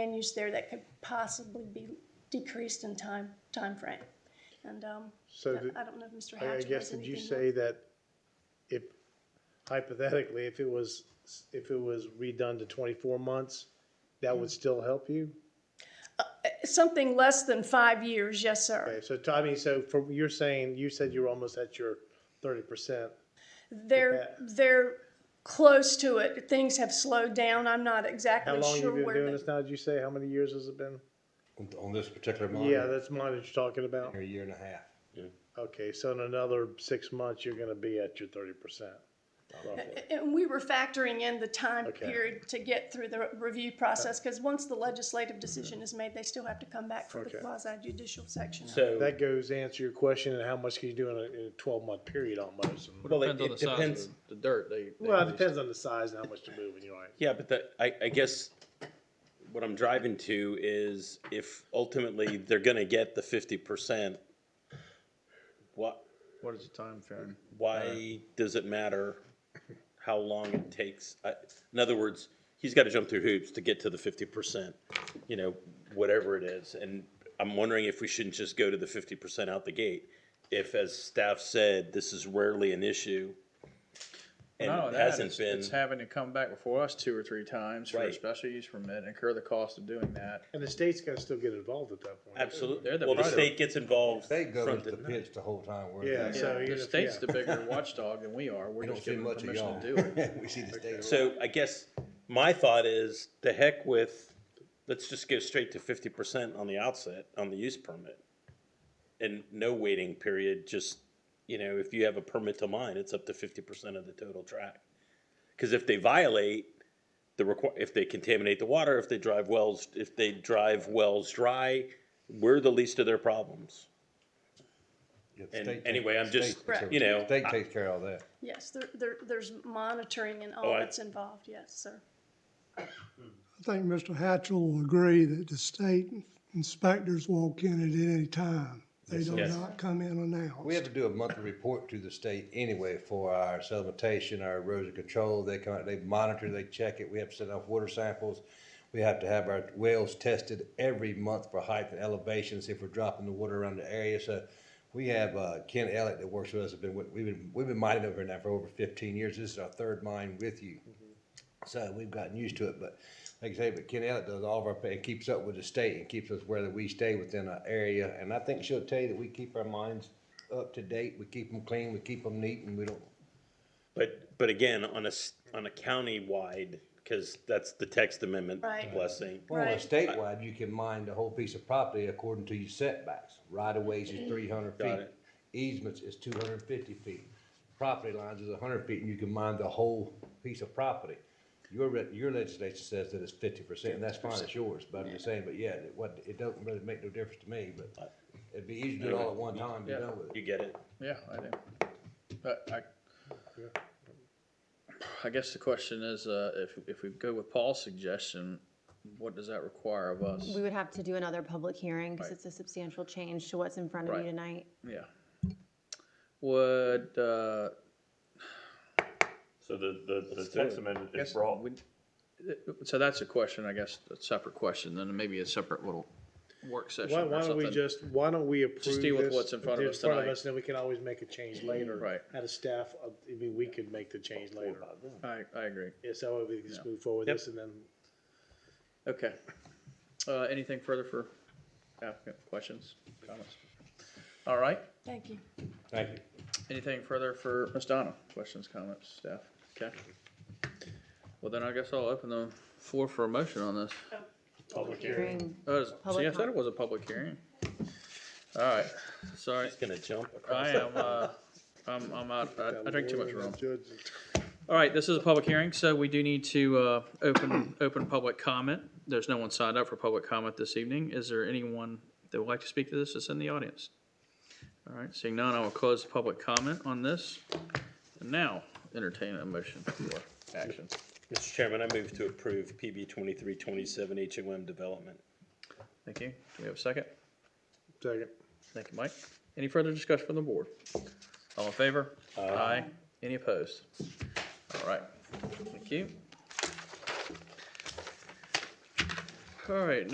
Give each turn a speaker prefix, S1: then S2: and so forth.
S1: land use there that could possibly be decreased in time, timeframe. And, um,
S2: So did-
S1: I don't know if Mr.
S2: I I
S1: Hatch
S2: guess,
S1: has
S2: did you
S1: anything
S2: say that if hypothetically, if it was, if it was redone to twenty-four months, that would
S1: Mm-hmm.
S2: still help you?
S1: Something less than five years, yes, sir.
S2: Okay, so Tommy, so from, you're saying, you said you were almost at your thirty percent.
S1: They're, they're close to it. Things have slowed down. I'm not
S2: How
S1: exactly
S2: long you
S1: sure
S2: been
S1: where
S2: doing
S1: the.
S2: this now, did you say? How many years has it been?
S3: on, on this particular monitor.
S2: Yeah, that's mine that you're talking about.
S3: A year and a half.
S2: Okay, so in another six months, you're gonna be at your thirty percent.
S1: And we were factoring in the time
S2: Okay.
S1: period to get through the review process, because once the legislative decision is made, they still have to come back for the
S2: Okay.
S1: quasi judicial section.
S4: So,
S2: That goes to answer your question, and how much can you do in a, in a twelve-month period almost? And-
S4: well, it
S5: Depends on
S4: it
S5: the size
S4: depends,
S5: of the dirt. They, they
S2: Well, it
S5: release.
S2: depends on the size and how much to move, and you're right.
S4: yeah, but the, I, I guess what I'm driving to is if ultimately they're gonna get the fifty percent, what,
S6: What is the time frame?
S4: why does it matter how long it takes? I- In other words, he's gotta jump through hoops to get to the fifty percent, you know, whatever it is. And I'm wondering if we shouldn't just go to the fifty percent out the gate. If, as staff said, this is rarely an issue and
S6: No,
S4: it
S6: that
S4: hasn't
S6: is-
S4: been.
S6: It's having to come back before us two or three times for a
S4: Right.
S6: special use permit, incur the cost of doing that.
S2: And the state's gotta still get involved at that point. too.
S4: Absolutely.
S6: They're the
S4: Well, the
S6: product.
S4: state gets involved.
S3: They go
S4: front
S3: into the
S4: and-
S3: pitch the whole time. we're
S2: Yeah,
S3: there.
S2: so even
S6: The
S2: if-
S6: state's
S2: yeah.
S6: the bigger watchdog than we are. We're
S3: We don't
S6: just
S3: see
S6: giving them
S3: much of y'all.
S6: permission to do it.
S3: We see the state.
S4: So I guess my thought is the heck with, let's just go straight to fifty percent on the outset on the use permit. And no waiting period, just, you know, if you have a permit to mine, it's up to fifty percent of the total track. Cause if they violate the requi- if they contaminate the water, if they drive wells, if they drive wells dry, we're the least of their problems.
S3: Yeah, the
S4: And
S3: state takes-
S4: anyway, I'm just,
S3: state takes
S1: Right.
S4: you
S3: care-
S4: know,
S3: State
S4: I-
S3: takes care of all that.
S1: Yes, there, there, there's monitoring and all
S4: Oh, I-
S1: that's involved, yes, sir.
S7: I think Mr. Hatchell will agree that the state inspectors walk in at any time. They do
S4: Yes.
S7: not come in announced.
S3: We have to do a monthly report to the state anyway for our sedimentation, our erosion control. They come out, they monitor, they check it. We have to send off water samples. We have to have our wells tested every month for height and elevations if we're dropping the water around the area. So we have, uh, Ken Elliott that works with us, have been, with- we've been, we've been mining over here now for over fifteen years. This is our third mine with you. So we've gotten used to it, but like I say, but Ken Elliott does all of our, pay and keeps up with the state and keeps us where we stay within our area. And I think she'll tell you that we keep our mines up to date, we keep them clean, we keep them neat and we don't,
S4: But, but again, on a, s- on a county-wide, because that's the text amendment
S1: Right.
S4: blessing.
S3: well, on a
S1: Right.
S3: statewide, you can mine the whole piece of property according to your setbacks. Right of ways is three hundred
S4: Got
S3: feet,
S4: it.
S3: easements is two hundred and fifty feet, property lines is hundred feet and you can mine the whole piece of property. Your, re- your legislation says that it's fifty percent and that's fine, it's yours, but I'm just saying, but yeah, it, what, it doesn't really make no difference to me, but it'd be easy to do it all at one time, be
S6: Yeah.
S3: done with it.
S4: You get it?
S6: Yeah, I do. But I, I guess the question is, uh, if, if we go with Paul's suggestion, what does that require of us?
S8: We would have to do another public hearing because
S6: Right.
S8: it's a substantial change to what's in front of
S6: Right.
S8: you tonight.
S6: Yeah. Would, uh,
S9: So the, the, the text amendment is brought,
S6: would- so that's a question, I guess, a separate question, then maybe a separate little work session
S2: Why,
S6: or
S2: why don't we
S6: something.
S2: just, why don't we approve this?
S6: deal with what's in front of
S2: it's
S6: us
S2: in front
S6: tonight.
S2: and then we can always make a change later.
S6: Right.
S2: Out of staff, uh, I mean, we could make the change later.
S6: I, I agree.
S2: Yeah, so we can just move forward with this and then,
S6: Okay. Uh, anything further for applicant, questions, comments? All right,
S1: Thank you.
S3: Thank you.
S6: anything further for Ms. Donna, questions, comments, staff, okay? Well, then I guess I'll open the floor for a motion on this.
S8: Hearing
S6: Oh, is- see, I
S8: Public
S6: said it
S8: com-
S6: was a public hearing. All right, sorry,
S4: It's gonna jump across.
S6: I am, uh, I'm, I'm out, I- I drink too much rum.
S2: Judge,
S6: All right, this is a public hearing, so we do need to uh, open, open public comment. There's no one signed up for public comment this evening. Is there anyone that would like to speak to this that's in the audience? All right, seeing none, I will close the public comment on this. And now entertain a motion for action.
S4: Mr. Chairman, I move to approve PB twenty-three twenty-seven HOM development.
S6: Thank you. Do we have a second?
S2: second.
S6: Thank you, Mike. Any further discussion from the board? All in favor? Aye. Any opposed? All right, thank you. All right,